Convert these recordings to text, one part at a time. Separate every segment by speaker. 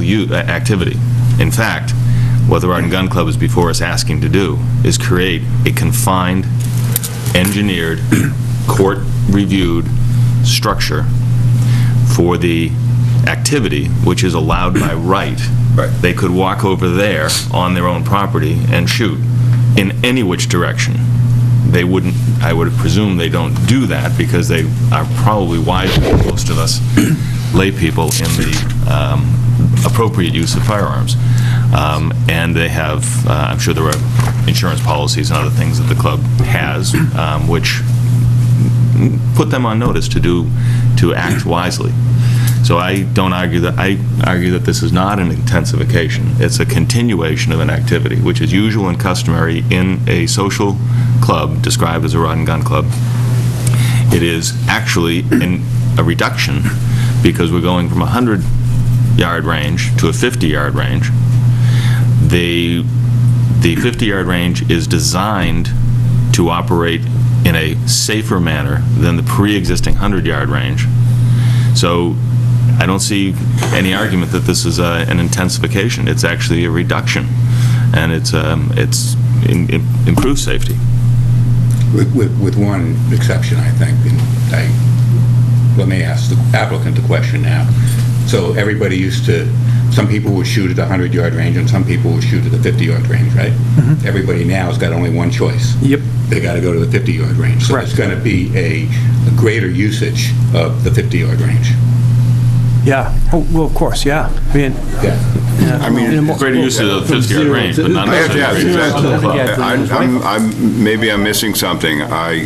Speaker 1: u- uh, activity. In fact, what the Rod and Gun Club is before us asking to do is create a confined, engineered, court-reviewed structure for the activity which is allowed by right.
Speaker 2: Right.
Speaker 1: They could walk over there on their own property and shoot in any which direction. They wouldn't, I would presume they don't do that because they are probably wiser than most of us laypeople in the um, appropriate use of firearms. Um, And they have, uh, I'm sure there are insurance policies and other things that the club has, um, which put them on notice to do, to act wisely. So I don't argue that, I argue that this is not an intensification. It's a continuation of an activity, which is usual and customary in a social club described as a rod and gun club. It is actually in a reduction because we're going from a 100-yard range to a 50-yard range. The the 50-yard range is designed to operate in a safer manner than the pre-existing 100-yard range. So I don't see any argument that this is uh, an intensification. It's actually a reduction, and it's, um, it's in- in- improved safety.
Speaker 2: With, with, with one exception, I think, and I, let me ask the applicant the question now. So everybody used to, some people would shoot at the 100-yard range, and some people would shoot at the 50-yard range, right? Everybody now's got only one choice.
Speaker 3: Yep.
Speaker 2: They gotta go to the 50-yard range. So it's
Speaker 3: Correct.
Speaker 2: gonna be a a greater usage of the 50-yard range.
Speaker 3: Yeah, Oh, well, of course, yeah. I mean,
Speaker 2: Yeah.
Speaker 3: yeah.
Speaker 4: I mean,
Speaker 3: In a mo-
Speaker 1: Greater use of the 50-yard range, but not
Speaker 4: I have to ask,
Speaker 1: necessarily
Speaker 4: is
Speaker 1: greater
Speaker 4: that-
Speaker 1: use of the club.
Speaker 4: I'm- I'm, I'm, maybe I'm missing something. I,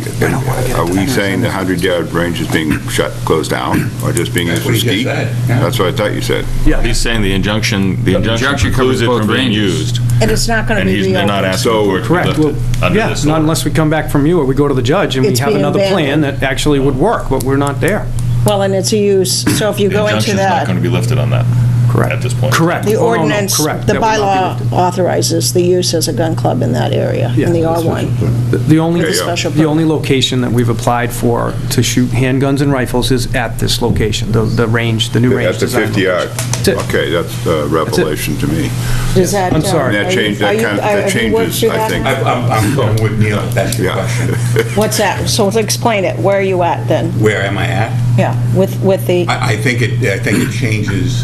Speaker 4: are we saying the 100-yard range is being shut, closed down, or just being used
Speaker 2: what
Speaker 4: for
Speaker 2: he just
Speaker 4: skeet?
Speaker 2: said, yeah.
Speaker 4: That's what I thought you said.
Speaker 3: Yeah,
Speaker 1: He's saying the injunction, the injunction
Speaker 5: injunction
Speaker 1: precludes
Speaker 5: covers
Speaker 1: it
Speaker 5: both
Speaker 1: from being
Speaker 5: ranges.
Speaker 1: used.
Speaker 6: And it's not going to
Speaker 1: And
Speaker 6: be
Speaker 1: he's they're not
Speaker 6: reopened.
Speaker 1: asking for it to be
Speaker 3: correct. Well,
Speaker 1: lifted under
Speaker 3: yeah,
Speaker 1: this
Speaker 3: not
Speaker 1: order.
Speaker 3: unless we come back from you or we go to the judge and we
Speaker 6: It's
Speaker 3: have
Speaker 6: being
Speaker 3: another plan
Speaker 6: abandoned.
Speaker 3: that actually would work, but we're not there.
Speaker 6: Well, and it's a use, so if you
Speaker 1: The
Speaker 6: go into
Speaker 1: injunction's not going
Speaker 6: that,
Speaker 1: to be lifted on that
Speaker 3: Correct.
Speaker 1: at this point.
Speaker 3: Correct.
Speaker 6: the
Speaker 3: Oh, no, no,
Speaker 6: ordinance,
Speaker 3: correct.
Speaker 6: the
Speaker 3: That would not
Speaker 6: bylaw
Speaker 3: be lifted.
Speaker 6: authorizes the use as a gun club in that area, in the
Speaker 3: Yeah.
Speaker 6: R1.
Speaker 3: The- The only,
Speaker 4: There you go.
Speaker 6: Special
Speaker 3: the only
Speaker 6: permit.
Speaker 3: location that we've applied for to shoot handguns and rifles is at this location, the, the range, the new range.
Speaker 4: That's a
Speaker 3: design
Speaker 4: 50-yard.
Speaker 3: That's it.
Speaker 4: Okay, that's a revelation to me.
Speaker 6: Does that?
Speaker 3: I'm
Speaker 6: uh,
Speaker 3: sorry.
Speaker 4: That
Speaker 6: are you-
Speaker 4: changed- that
Speaker 6: are you-
Speaker 4: kind of-
Speaker 6: are-
Speaker 4: that
Speaker 6: have you worked
Speaker 4: changes,
Speaker 6: through
Speaker 4: I
Speaker 6: that?
Speaker 4: think.
Speaker 2: I- I'm, I'm going with Neil, if that's your
Speaker 4: Yeah.
Speaker 2: question.
Speaker 6: What's that? So explain it. Where are you at then?
Speaker 2: Where am I at?
Speaker 6: Yeah, with, with the,
Speaker 2: I, I think it, I think it changes,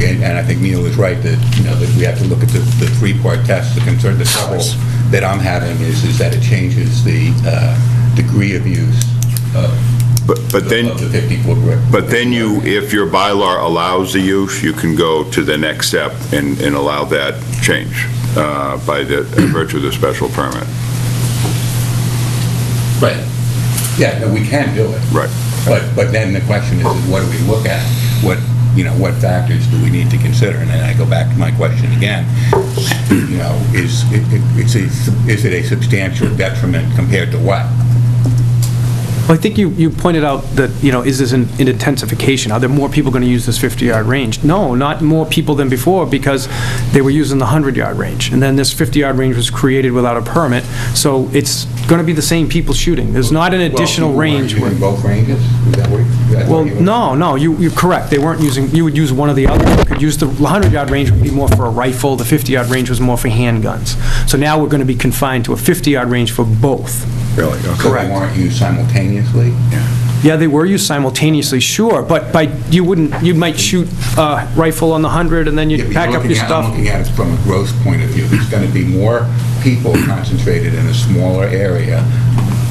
Speaker 2: and, and I think Neil is right, that, you know, that we have to look at the, the three-part test, the concern, the trouble that I'm having is, is that it changes the, uh, degree of use of,
Speaker 4: But, but then,
Speaker 2: of the 50-foot.
Speaker 4: but then you, if your bylaw allows the use, you can go to the next step and, and allow that change uh, by the, virtue of the special permit.
Speaker 2: Right. Yeah, no, we can do it.
Speaker 4: Right.
Speaker 2: But, but then the question is, is what do we look at? What, you know, what factors do we need to consider? And then I go back to my question again, you know, is, it- it- it's a- is it a substantial detriment compared to what?
Speaker 3: Well, I think you, you pointed out that, you know, is this an an intensification? Are there more people going to use this 50-yard range? No, not more people than before, because they were using the 100-yard range. And then this 50-yard range was created without a permit, so it's going to be the same people shooting. There's not an additional
Speaker 2: Well,
Speaker 3: range.
Speaker 2: you were
Speaker 3: where-
Speaker 2: using both ranges? Is that what you- that's what
Speaker 3: Well,
Speaker 2: you-
Speaker 3: no, no, you, you're correct. They weren't using, you would use one or the other. You could use the 100-yard range would be more for a rifle, the 50-yard range was more for handguns. So now we're going to be confined to a 50-yard range for both.
Speaker 4: Really?
Speaker 2: So they weren't used simultaneously?
Speaker 3: Yeah, they were used simultaneously, sure, but by, you wouldn't, you might shoot a rifle on the 100, and then
Speaker 2: Yeah, but
Speaker 3: you'd
Speaker 2: you're
Speaker 3: pack up
Speaker 2: looking
Speaker 3: your
Speaker 2: at-
Speaker 3: stuff.
Speaker 2: I'm looking at it from a growth point of view. There's going to be more people concentrated in a smaller area,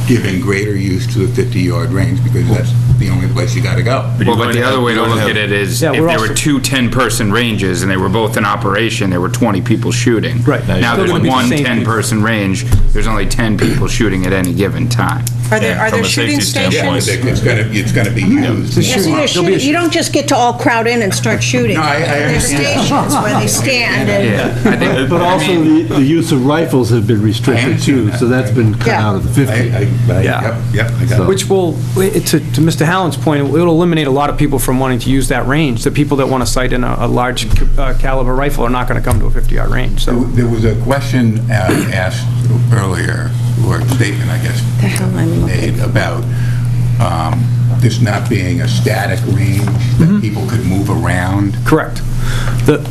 Speaker 2: giving greater use to the 50-yard range, because that's the only place you got to go.
Speaker 5: Well, but the other way to look at it is,
Speaker 3: Yeah,
Speaker 5: if
Speaker 3: we're
Speaker 5: there were
Speaker 3: also-
Speaker 5: two 10-person ranges and they were both in operation, there were 20 people shooting.
Speaker 3: Right. Now
Speaker 5: Now
Speaker 3: you're
Speaker 5: there's
Speaker 3: gonna be the
Speaker 5: one
Speaker 3: same people.
Speaker 5: 10-person range, there's only 10 people shooting at any given time.
Speaker 7: Are there, are
Speaker 1: From
Speaker 7: there
Speaker 1: a
Speaker 7: shooting
Speaker 1: safety standpoint.
Speaker 7: stations?
Speaker 2: It's going to, it's going to be used.
Speaker 3: It's
Speaker 2: more.
Speaker 3: a
Speaker 6: Yes,
Speaker 3: shoot-
Speaker 6: you just
Speaker 3: There'll be a
Speaker 6: shoot- you don't just get to all crowd in and start shooting.
Speaker 2: No, I- I
Speaker 6: There's
Speaker 2: understand.
Speaker 6: stations where they stand and,
Speaker 5: Yeah, I think,
Speaker 8: But
Speaker 5: I
Speaker 8: also,
Speaker 5: mean,
Speaker 8: the, the use of rifles have been
Speaker 2: I
Speaker 8: restricted
Speaker 2: understand
Speaker 8: too,
Speaker 2: that.
Speaker 8: so that's been cut
Speaker 6: Yeah.
Speaker 8: out of the
Speaker 2: I,
Speaker 8: 50.
Speaker 2: I, I-
Speaker 3: Yeah.
Speaker 2: yep, yep, I got it.
Speaker 3: Which will, to, to Mr. Hallen's point, it'll eliminate a lot of people from wanting to use that range. The people that want to sight in a, a large uh, caliber rifle are not going to come to a 50-yard range,
Speaker 2: There
Speaker 3: so.
Speaker 2: there was a question uh, asked earlier, or a statement, I guess,
Speaker 6: The hell I'm looking.
Speaker 2: made about um, this not being a static range, that people could move around.
Speaker 3: Correct. The,